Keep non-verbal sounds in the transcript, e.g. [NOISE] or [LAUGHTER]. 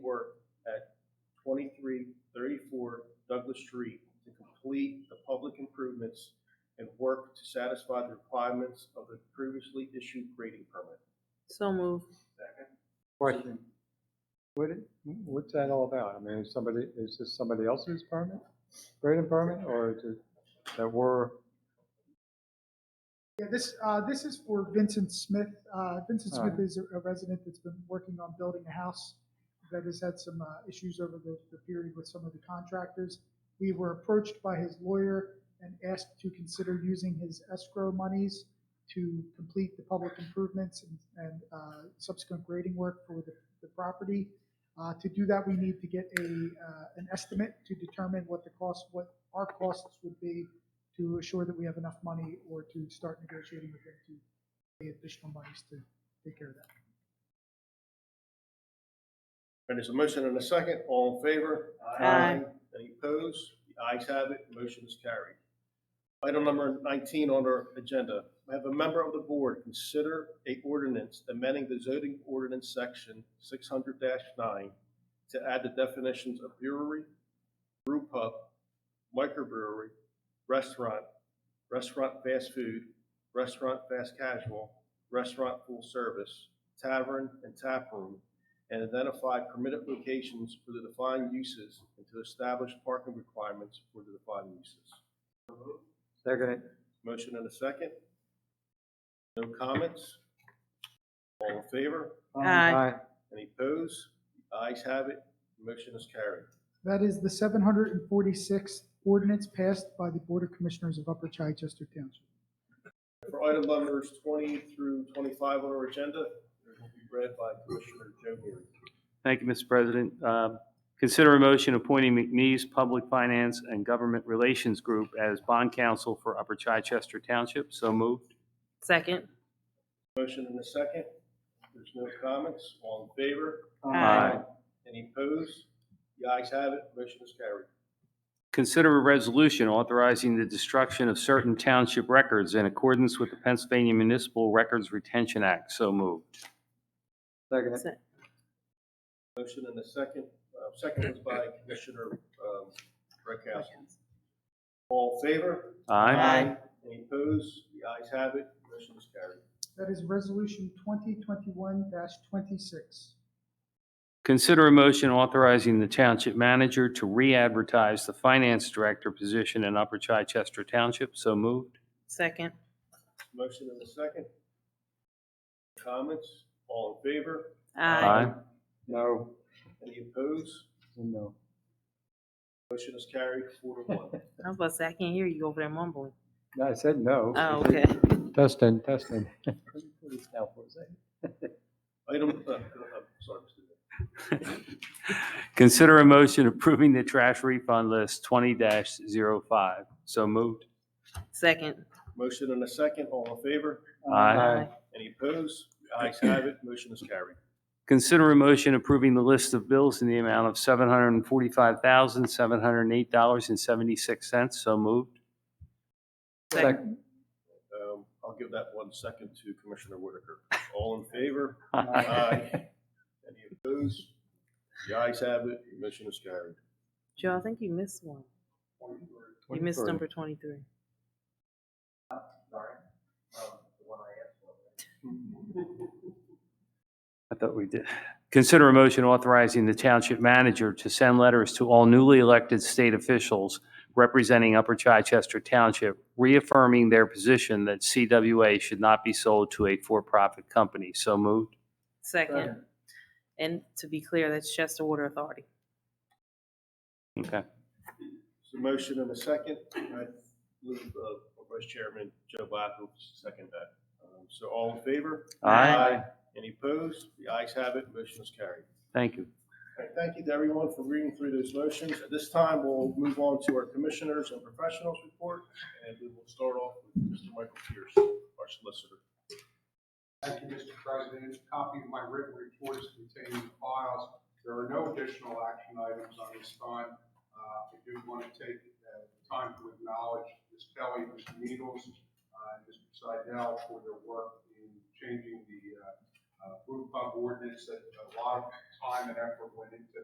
the street to complete the public improvements and work to satisfy the requirements of the previously issued grading permit. So move. Question. What, it- what's that all about? I mean, is somebody, is this somebody else's permit, grading permit, or is it that we're, Yeah, this, uh, this is for Vincent Smith. Uh, Vincent Smith Alright. is a- a resident that's been working on building a house that has had some, uh, issues over the, the period with some of the contractors. We were approached by his lawyer and asked to consider using his escrow monies to complete the public improvements and, and, uh, subsequent grading work for the, the property. Uh, to do that, we need to get a, uh, an estimate to determine what the cost, what our costs would be to assure that we have enough money or to start negotiating with them to pay additional monies to take care of that. And there's a motion and a second, all in favor? Aye. Aye. Any opposed? The ayes have it, motion is carried. Item number nineteen on our agenda, I have a member of the board consider a ordinance amending the zoning ordinance section six hundred nine to add the definitions of brewery, brew pub, microbrewery, restaurant, restaurant fast food, restaurant fast casual, restaurant full service, tavern, and tap room, and identify permitted locations for the defined uses and to establish parking requirements for the defined uses. second, it? Motion and a second. No comments? All in favor? Uh, Aye. Any opposed? The ayes have it. Motion is carried. That is the 746th ordinance passed by the Board of Commissioners of Upper Chichester Township. For item numbers twenty through twenty-five on our agenda, it will be read by Commissioner Joe Meary. Thank you, Mr. President. Um, Consider a motion appointing McNeese Public Finance and Government Relations Group as bond counsel for Upper Chichester Township. So moved. Second. Motion and a second. There's no comments. All in favor? uh, Aye. Any opposed? The ayes have it. Motion is carried. Consider a resolution authorizing the destruction of certain township records in accordance with the Pennsylvania Municipal Records Retention Act. So moved. Second, it? Se- Motion and a second, uh, second was by Commissioner, um, Redcastle. All in favor? Aye. Any opposed? The ayes have it, motion is carried. That is Resolution 2021-26. Consider a motion authorizing the township manager to re-advertise the finance director position in Upper Chichester Township. So moved. Second. Motion and a second. Comments? All in favor? Aye. no, Any opposed? no. Motion is carried four to one. I was about to say, I can't hear you over there mumbling. No, I said no. Oh, okay. [LAUGHS] Testing, testing. Please now for a second. Item, uh, I'm sorry, Mr. Mayor. Consider a motion approving the trash refund list twenty 5 So moved. Second. Motion and a second, all in favor? Aye. Any opposed? The ayes have it, motion is carried. Consider a motion approving the list of bills in the amount of seven hundred and forty-five thousand, seven hundred and eight dollars and seventy-six cents. So moved. [LAUGHS] Second. Um, I'll give that one second to Commissioner Whitaker. All in favor? Aye. Aye. Uh, Any opposed? The ayes have it, the motion is carried. Joe, I think you missed one. You missed 23. number twenty-three. I thought we did. Consider a motion authorizing the township manager to send letters to all newly elected state officials representing Upper Chichester Township, reaffirming their position that CWA should not be sold to a for-profit company. So moved. Second. And to be clear, that's Chester Water Authority. Okay. So motion and a second. I believe, uh, Vice Chairman Joe Black will second that. Um, So all in favor? Aye. Any opposed? The ayes have it, motion is carried. Thank you. All right, Thank you to everyone for reading through those motions. At this time, we'll move on to our Commissioners and Professionals Report, and we will start off with Mr. Michael Pierce, our Solicitor. Thank you, Mr. President. A Copy of my written report is contained in the files. There are no additional action items on this time. Uh, I do want to take uh, time to acknowledge Ms. Kelly, Mr. Needles, uh, and Mr. Seidel for their work in changing the uh, uh, brew pub ordinance that a lot of time and effort went into